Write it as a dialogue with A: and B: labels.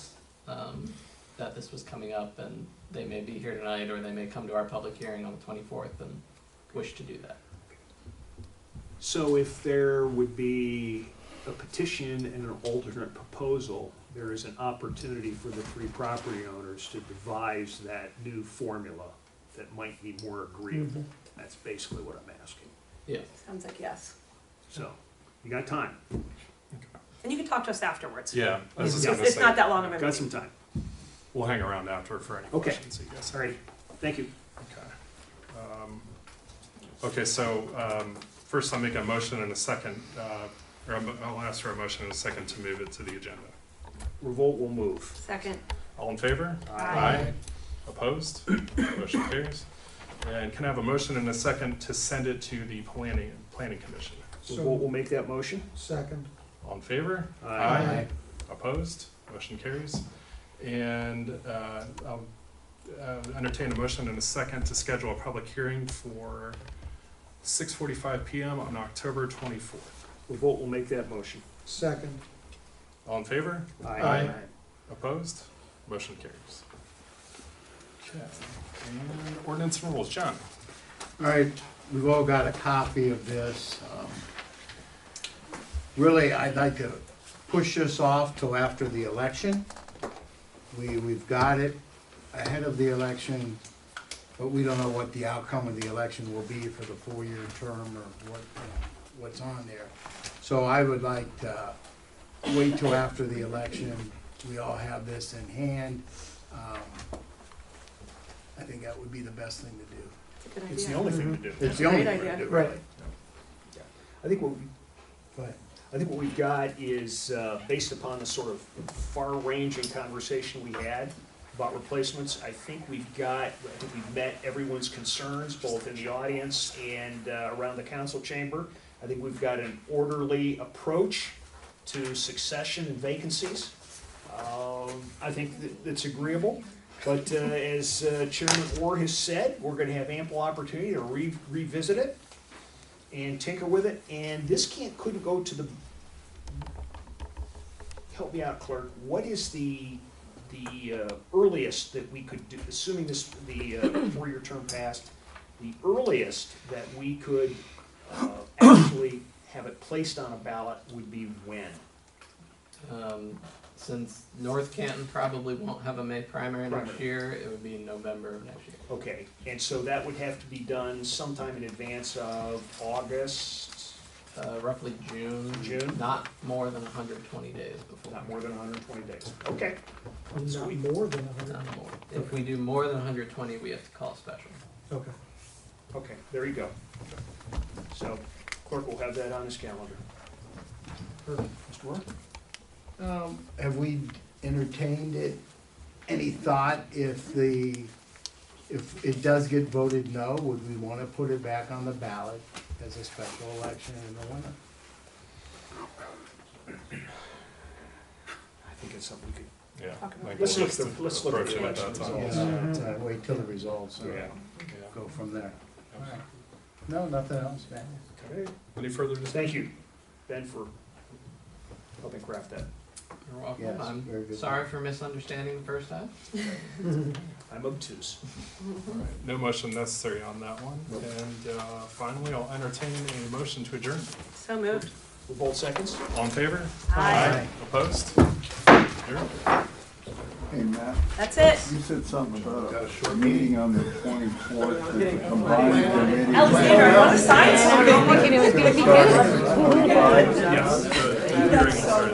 A: um, that this was coming up and they may be here tonight or they may come to our public hearing on the twenty-fourth and wish to do that.
B: So if there would be a petition and an alternate proposal, there is an opportunity for the three property owners to devise that new formula that might be more agreeable.
C: Mm-hmm.
B: That's basically what I'm asking.
A: Yes.
D: Sounds like yes.
B: So, you got time,
D: And you can talk to us afterwards.
E: Yeah, I was just
D: It's,
E: gonna
D: it's not
E: say,
D: that long of a
B: got
D: meeting.
B: some time.
E: we'll hang around after for any
B: Okay.
E: questions, I guess.
B: All right, thank you.
E: Okay. Um, Okay, so um, first I'll make a motion and a second, uh, or I'm- I'll ask for a motion and a second to move it to the agenda.
B: Revolt will move.
D: Second.
E: All in favor?
D: Aye.
E: Opposed? Motion carries. And can I have a motion and a second to send it to the planning, planning commission?
B: Revolt will make that motion.
C: Second.
E: All in favor?
C: Aye.
E: Opposed? Motion carries. And uh, I'll uh, entertain a motion in a second to schedule a public hearing for 6:45 PM on October 24th.
B: Revolt will make that motion.
C: Second.
E: All in favor?
C: Aye.
E: Opposed? Motion carries. Okay. And ordinance and rules. John?
F: All right, we've all got a copy of this. Um, Really, I'd like to push this off till after the election. We, we've got it ahead of the election, but we don't know what the outcome of the election will be for the four-year term or what, you know, what's on there. So I would like to wait till after the election. We all have this in hand. Um, I think that would be the best thing to do.
D: It's
B: Mm-hmm.
D: a good
B: It's the
D: idea.
B: only thing to do.
F: It's the only
D: Great
F: way to
D: idea.
F: do it, really.
B: I think what we
F: Go ahead.
B: I think what we've got is, uh, based upon the sort of far-ranging conversation we had about replacements, I think we've got, I think we've met everyone's concerns, both in the audience and uh, around the council chamber. I think we've got an orderly approach to succession and vacancies. Um, I think that- that's agreeable, but uh, as uh, Chairman Orr has said, we're gonna have ample opportunity to re- revisit it and tinker with it, and this can't, couldn't go to the, help me out, clerk, what is the, the uh, earliest that we could do, assuming this, the uh, four-year term passed, the earliest that we could uh, actually have it placed on a ballot would be when?
A: Um, since North Canton probably won't have a May primary next
B: Primary.
A: year, it would be November of next year.
B: Okay, and so that would have to be done sometime in advance of August,
A: Uh, roughly June.
B: June?
A: Not more than hundred and twenty days before.
B: not more than hundred and twenty days. Okay,
C: Not more than a hundred.
A: Not more. If we do more than hundred and twenty, we have to call a special.
C: Okay.
B: okay, there you go. So clerk will have that on his calendar. Mr. Moore?
F: Um, Have we entertained it, any thought if the, if it does get voted no, would we want to put it back on the ballot as a special election in the winter?
B: I think it's something we could.
E: Yeah.
D: Talk about
E: like
D: it.
B: Let's look
E: just
B: at the- let's look at the
E: approaching it
B: election
E: that time.
B: results.
F: Yeah, uh, Wait till the results, and
E: Oh, Yeah.
F: go from there. No, nothing else, man.
B: Okay.
E: Any further discussion?
B: Thank you, Ben, for helping craft that.
A: You're welcome.
F: Yes,
A: I'm
F: very good.
A: Sorry for misunderstanding the first time.
B: I'm obtuse.
E: All right, No motion necessary on that one.
F: Nope.
E: And uh, finally, I'll entertain a motion to adjourn.
D: So moved.
B: We're both seconds?
E: All in favor?
F: Aye.
E: Opposed? Adjourned.
G: Hey, Matt,
D: That's it.
G: you said something about a meeting on the twenty-fourth, the combined committee.
D: Alexander, I want to sign something.
G: It's gonna start at 25.
E: Yes, the hearing will start.